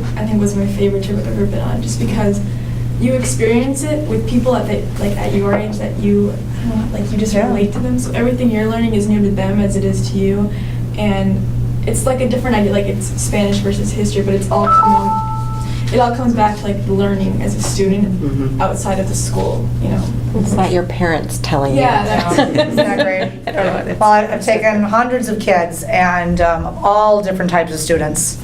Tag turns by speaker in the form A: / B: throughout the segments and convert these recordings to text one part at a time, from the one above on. A: I think was my favorite trip I've ever been on, just because you experience it with people at the, like at your age that you, I don't know, like you just
B: Yeah.
A: relate to them. So everything you're learning is new to them as it is to you, and it's like a different idea. Like it's Spanish versus history, but it's all coming. It all comes back to like learning as a student
C: Mm-hmm.
D: Mhm.
A: outside of the school. You know,
E: It's not your parents telling you.
A: Yeah,
B: Isn't that great?
E: I don't know. what it's-
B: Well, I've taken hundreds of kids and um, all different types of students,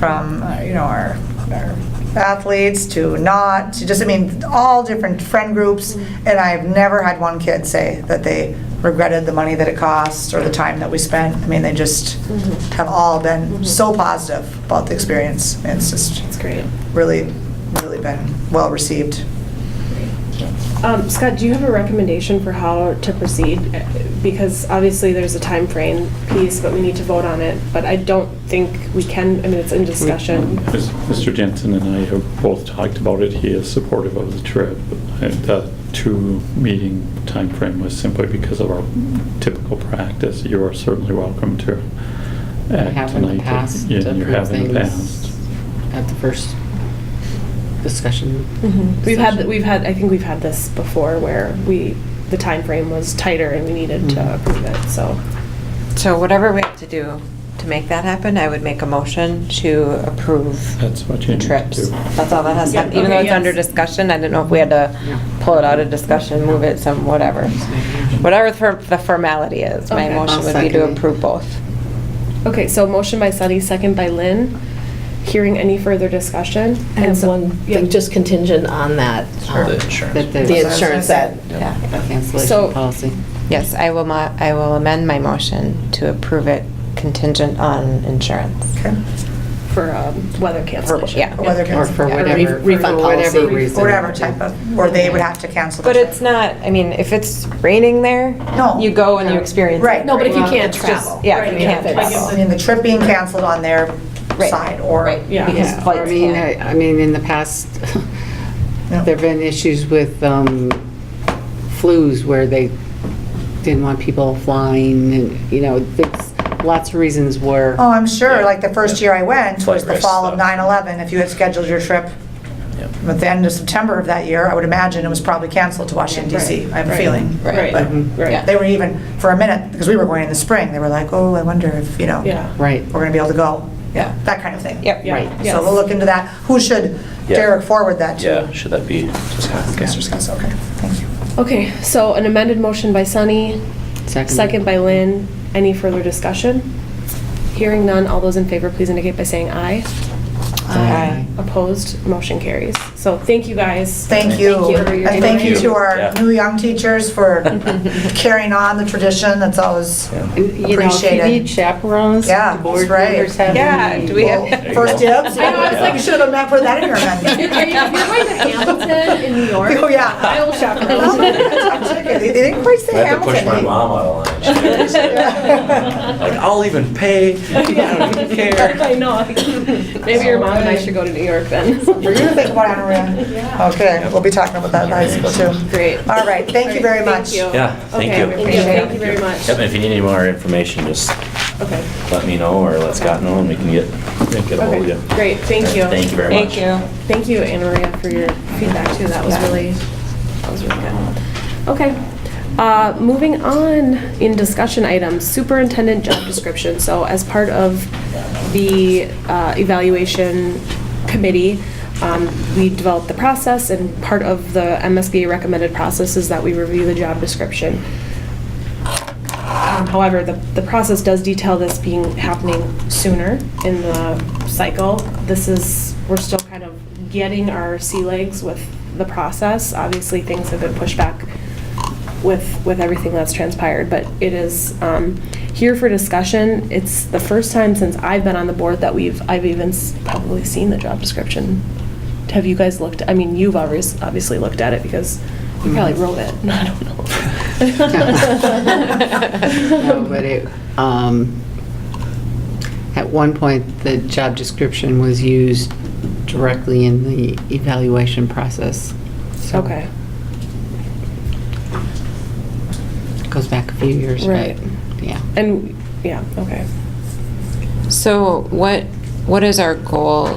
B: from, uh, you know, our our athletes to not, to just, I mean, all different friend groups, and I've never had one kid say that they regretted the money that it cost or the time that we spent. I mean, they just
E: Mm-hmm.
B: have all been so positive about the experience. It's just
F: That's great.
B: really, really been well-received.
F: Um, Scott, do you have a recommendation for how to proceed? Because obviously there's a time frame piece, but we need to vote on it. But I don't think we can, I mean, it's in discussion.
C: Mis- Mr. Jensen and I have both talked about it. He is supportive of the trip. And The two-meeting timeframe was simply because of our typical practice. You are certainly welcome to act tonight.
D: Have in the past,
C: Yeah,
D: to
C: you
D: approve
C: have in the
D: things
C: past.
D: at the first discussion.
E: Mhm.
F: We've had, we've had, I think we've had this before where we, the time frame was tighter and we needed to
D: Mhm.
F: approve it, so.
E: So whatever we have to do to make that happen, I would make a motion to approve
C: That's what you
E: the
C: need to
E: trips.
C: do.
E: That's all that has to
F: Yeah,
E: happen, even though
F: okay,
E: it's under
F: yes.
E: discussion. I didn't know if we had to
D: Yeah.
E: pull it out of discussion, move it some, whatever. Whatever the for- the formality is, my
F: Okay.
E: motion
D: I'll
E: would be to
D: second it.
E: approve both.
F: Okay, so motion by Sunny, second by Lynn. Hearing any further discussion?
G: I have
F: so-
G: one
F: yeah.
G: thing, just contingent on that. um,
H: The insurance.
D: That there's
G: The insurance that,
E: Yeah.
D: a
F: So-
D: cancellation policy.
E: Yes, I will, mo- I will amend my motion to approve it contingent on insurance.
B: Okay?
F: For um, weather cancellation.
E: yeah.
B: Whether
D: Or
B: cancelled.
D: for
G: Yeah,
D: whatever,
G: re-
D: for
G: refund
D: whatever
G: policy.
D: reason.
B: whatever type of, or they would have to cancel. the
E: But
B: trip.
E: it's not, I mean, if it's raining there,
B: No.
E: you go and you experience it.
B: Right.
F: No, but if you
G: Well,
F: can't
G: it's
F: travel.
G: just-
E: Yeah,
F: Right,
E: if you can't
F: if it's-
B: I mean, the trip being canceled on their
E: Right.
B: side, or,
E: Right,
F: Yeah.
E: because
D: Yeah, I
E: flights
D: mean,
E: can't.
D: I I mean, in the past,
B: Yeah.
D: there've been issues with um, flus where they didn't want people flying and, you know, there's lots of reasons where.
B: oh, I'm sure, like, the first year I went was
H: Flight
B: the
H: risk
B: fall of
H: stuff.
B: 9/11, if you had scheduled your trip
H: Yep.
B: at the end of September of that year, I would imagine it was probably canceled to Washington DC, I have a
F: Right.
B: feeling.
F: Right, Mm-hmm.
B: But
F: right.
B: They were even, for a minute, because we were going in the spring, they were like, oh, I wonder if, you know,
F: Yeah.
D: Right.
B: we're gonna be able to go, yeah, that kind of thing.
E: Yep.
F: Yeah,
D: Right.
F: yes.
B: So we'll look into that, who should
H: Yeah.
B: Derek forward that to?
H: Yeah, should that be
B: Mr.
H: discussed?
B: Scott, okay, thank you.
F: Okay, so an amended motion by Sunny, second by Lynn. Any further discussion? Hearing none, all those in favor, please indicate by saying aye.
E: Aye.
F: Opposed, motion carries. So thank you guys.
B: Thank you.
F: for your
B: And thank you
F: time.
B: to
H: Yeah.
B: our new young teachers for carrying on the tradition. That's always,
D: And, You know, if you
B: Appreciate it.
D: need chaperones,
B: Yeah,
D: the board
B: that's right.
D: members have.
E: Yeah,
D: any-
E: do we have?
B: first dibs.
H: I know, I was like-
B: You should have not put that in your amendment.
G: If you're going to Hamilton in New York,
B: Oh, yeah.
G: I will chaperone.
B: Oh, my gosh, I'm joking. They didn't quite say
H: I had to
B: Hamilton.
H: push my mom out of line. She had to say, Like, I'll even pay, I don't even care.
F: I know. Maybe your mom and I should go to New York then.
B: We're gonna think about honoring. Okay, we'll be talking about that in high school too.
F: Great.
B: All right, thank you very much.
F: you.
H: Yeah, thank
F: Okay,
H: you.
F: Thank you very much.
H: Yep, and if you need any more information, just
F: Okay,
H: let me know or let Scott know and we can get, get ahold of you.
F: okay, great, thank you.
H: Thank you very much.
E: Thank you.
F: Thank you, Anna Maria, for your feedback too. That was really, that was really good. Okay. Uh, Moving on in discussion items, superintendent job description. So as part of the uh, evaluation committee, um, we developed the process and part of the MSBA recommended process is that we review the job description. Um, However, the, the process does detail this being, happening sooner in the cycle. This is, we're still kind of getting our sea legs with the process. Obviously, things have been pushed back with, with everything that's transpired, but it is um, here for discussion. It's the first time since I've been on the board that we've, I've even s- probably seen the job description. Have you guys looked, I mean, you've obviously, obviously looked at it because you probably wrote it. I don't know.
D: No, but it, um, at one point, the job description was used directly in the evaluation process. So
F: Okay,
D: it Goes back a few years,
F: Right.
D: but, yeah.
F: and, yeah, okay.
E: So what, what is our goal